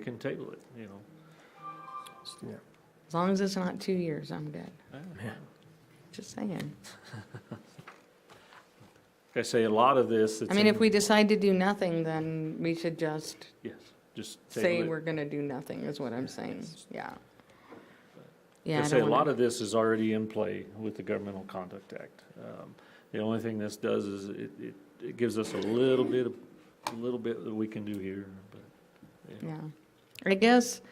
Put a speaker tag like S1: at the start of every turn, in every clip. S1: We can table it, you know.
S2: Yeah.
S3: As long as it's not two years, I'm good.
S1: I don't know.
S2: Yeah.
S3: Just saying.
S1: Like I say, a lot of this. it's
S3: I mean,
S1: in-
S3: if we decide to do nothing, then we should just
S1: Yes, just
S3: say
S1: table
S3: we're
S1: it.
S3: gonna do nothing, is what I'm saying, yeah.
S1: Like
S3: Yeah,
S1: I
S3: I
S1: say, a
S3: don't
S1: lot
S3: wanna,
S1: of this is already in play with the Governmental Conduct Act. Um, The only thing this does is it, it, it gives us a little bit, of- a little bit that we can do here, but
S3: yeah. I guess,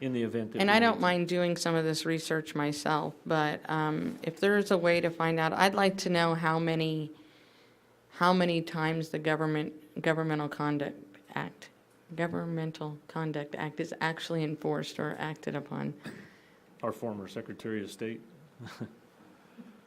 S1: in the event that.
S3: and
S1: we
S3: I
S1: need
S3: don't
S1: to-
S3: mind doing some of this research myself, but, um, if there's a way to find out, I'd like to know how many, how many times the government, governmental conduct act, governmental conduct act is actually enforced or acted upon.
S1: Our former Secretary of State,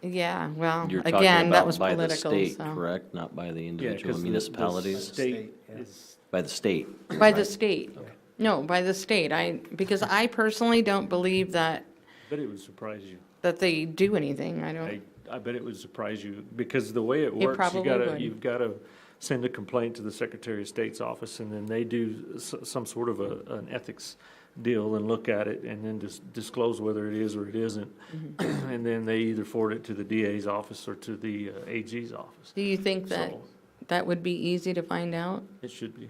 S3: Yeah, well,
S4: You're talking
S3: again, that
S4: about
S3: was
S4: by the
S3: political,
S4: state,
S3: so.
S4: correct? Not by the
S1: yeah,
S4: individual
S1: because
S4: municipalities?
S1: State
S2: State, yeah.
S1: is,
S4: By the state.
S3: By the state.
S1: Okay.
S3: No, by the state. I, because I personally don't believe that,
S1: but it would surprise you.
S3: that they do anything. I
S1: I,
S3: don't,
S1: I bet it would surprise you, because the way it works, you
S3: probably
S1: gotta,
S3: would.
S1: you've gotta send a complaint to the Secretary of State's office, and then they do s- some sort of a, an ethics deal and look at it, and then dis- disclose whether it is or it isn't.
S3: Mm-hmm.
S1: And then they either forward it to the DA's office or to the uh, AG's office.
S3: do you think that
S1: So,
S3: that would be easy to find out?
S1: it should be.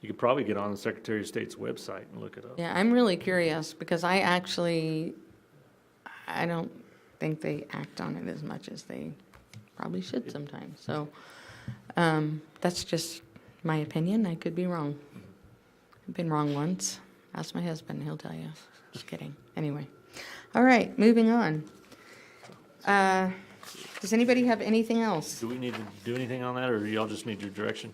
S1: You could probably get on the Secretary of State's website and look it up.
S3: Yeah, I'm really curious because I actually, I don't think they act on it as much as they probably should sometimes. So, um, that's just my opinion. I could be wrong. I've been wrong once. Ask my husband, he'll tell you. Just kidding. Anyway. All right, moving on. Uh, does anybody have anything else?
S1: Do we need to do anything on that, or y'all just need your direction?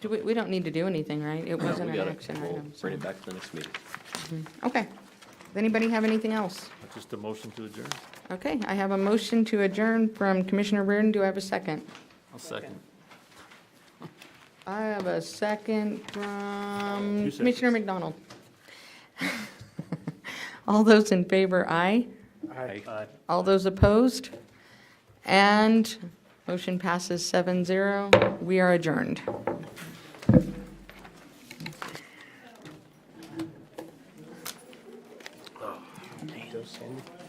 S3: Do we, we don't need to do anything, right? It wasn't
S4: We
S3: an
S4: gotta-
S3: action
S4: we'll
S3: item.
S4: Bring
S3: so-
S4: it back to the next meeting.
S3: Okay. Does anybody have anything else?
S1: Just a motion to adjourn?
S3: Okay, I have a motion to adjourn from Commissioner Reardon. Do I have a second?
S4: I'll second.
S3: I have a second from
S1: Two seconds.
S3: Commissioner McDonald. All those in favor, aye.
S1: Aye.
S3: All those opposed? And motion passes 7-0. We are adjourned.
S2: Just send it.